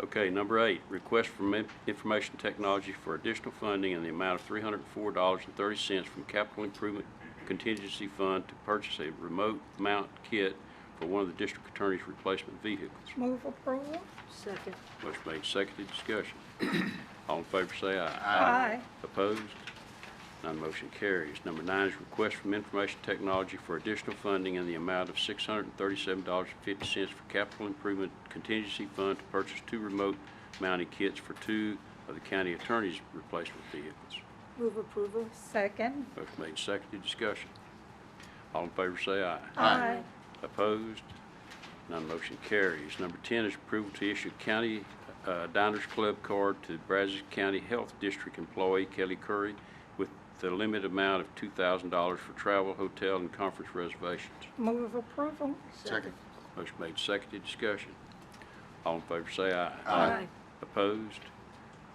Okay, number eight, request from in- Information Technology for additional funding in the amount of three hundred and four dollars and thirty cents from Capital Improvement Contingency Fund to purchase a remote mount kit for one of the district attorney's replacement vehicles. Move approval? second, Motion made, seconded, discussion. All in favor say aye. Aye. Opposed? None motion carries. Number nine is request from Information Technology for additional funding in the amount of $637.50 for capital improvement contingency fund to purchase two remote mounting kits for two of the county attorney's replacement vehicles. move approval, Second? Motion made, and seconded, discussion. All in favor say aye. Aye. Opposed? None motion carries. Number 10 is approval to issue County uh, Diners Club card to Brazos County Health District employee Kelly Curry with the limit amount of $2,000 for travel, hotel, and conference reservations. Move approval? second. Motion made, seconded, discussion. All in favor say aye. Aye. Opposed?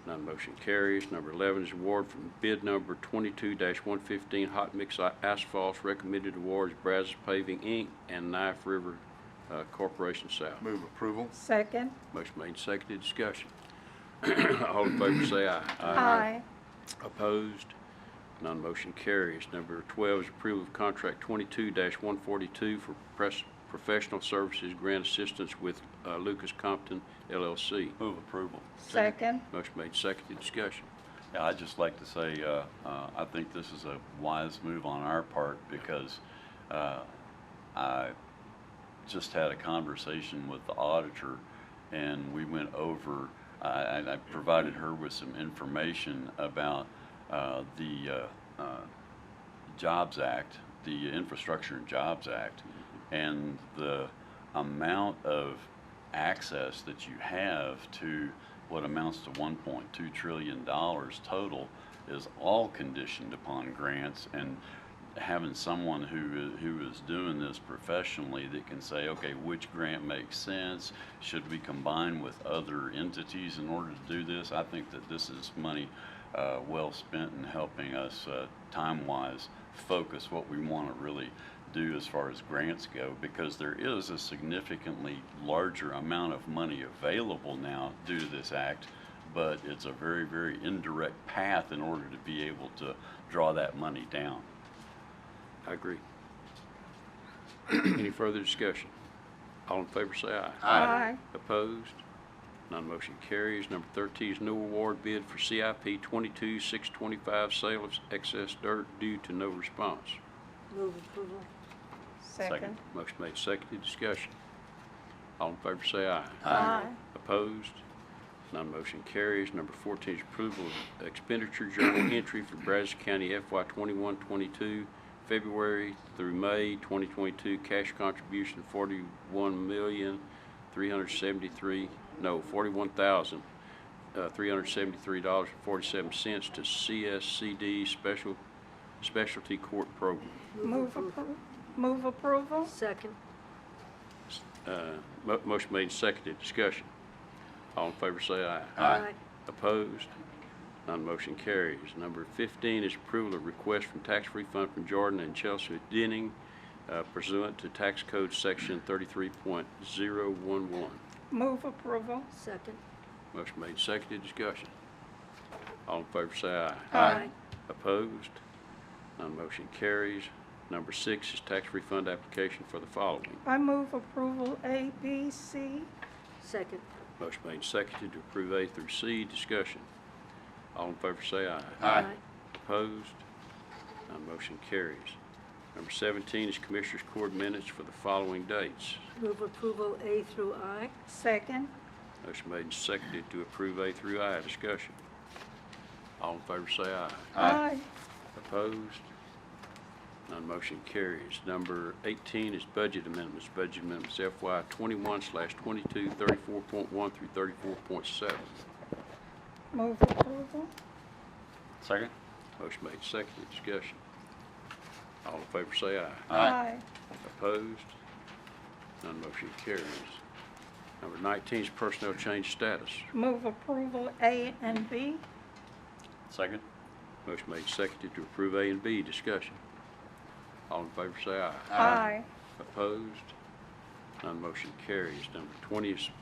None motion carries. Number 11 is award from bid number 22-115 Hot Mix A- Asphalt. Recommended awards Brazos Paving, Inc. and Knife River uh, Corporation South. Move approval. Second? Motion made, seconded, discussion. All in favor say aye. Aye. Opposed? None motion carries. Number 12 is approval of contract 22-142 for pres- professional services grant assistance with uh, Lucas Compton LLC. Move approval. Second? Motion made, seconded, discussion. Yeah, I'd just like to say, uh, uh, I think this is a wise move on our part because uh, I just had a conversation with the auditor and we went over, I- and I provided her with some information about uh, the uh, uh, Jobs Act, the Infrastructure and Jobs Act, and the amount of access that you have to what amounts to $1.2 trillion total is all conditioned upon grants and having someone who, i- who is doing this professionally that can say, okay, which grant makes sense? Should we combine with other entities in order to do this? I think that this is money uh, well spent in helping us uh, time-wise focus what we want to really do as far as grants go because there is a significantly larger amount of money available now due to this act but it's a very very indirect path in order to be able to draw that money down I agree. Any further discussion? All in favor say aye. Aye. Opposed? None motion carries. Number 13 is no award bid for CIP 22-625 sale of excess dirt due to no response. move approval, Second? Motion made, seconded, discussion. All in favor say aye. Aye. Opposed? None motion carries. Number 14 is approval of expenditure journal entry for Brazos County FY 21-22, February through May 2022, cash contribution 41,373, no, uh, $41,373.47 to CSCD Special Specialty Court Program. Move appro, move approval? second, Uh, mo- Motion made, and seconded, discussion. All in favor say aye. aye, Opposed? None motion carries. Number 15 is approval of request from tax refund from Jordan and Chelsea Denning uh, pursuant to Tax Code Section 33.011. Move approval? second, Motion made, seconded, discussion. All in favor say aye. aye, Opposed? None motion carries. Number six is tax refund application for the following. I move approval A, B, C. second, Motion made, and seconded to approve A through C, discussion. All in favor say aye. aye, Opposed? None motion carries. Number 17 is Commissioners Court minutes for the following dates. move approval A through I, Second? Motion made and seconded to approve A through I. Discussion. All in favor say aye. Aye. Opposed? None motion carries. Number 18 is budget amendments. Budget amendments FY 21/22, 34.1 through 34.7. Move approval? second Motion made, seconded. Discussion. All in favor say aye. Aye. Opposed? None motion carries. Number 19 is personnel change status. Move approval A and B? second Motion made, seconded to approve A and B. Discussion. All in favor say aye. Aye. Opposed? None motion carries. Number 20 is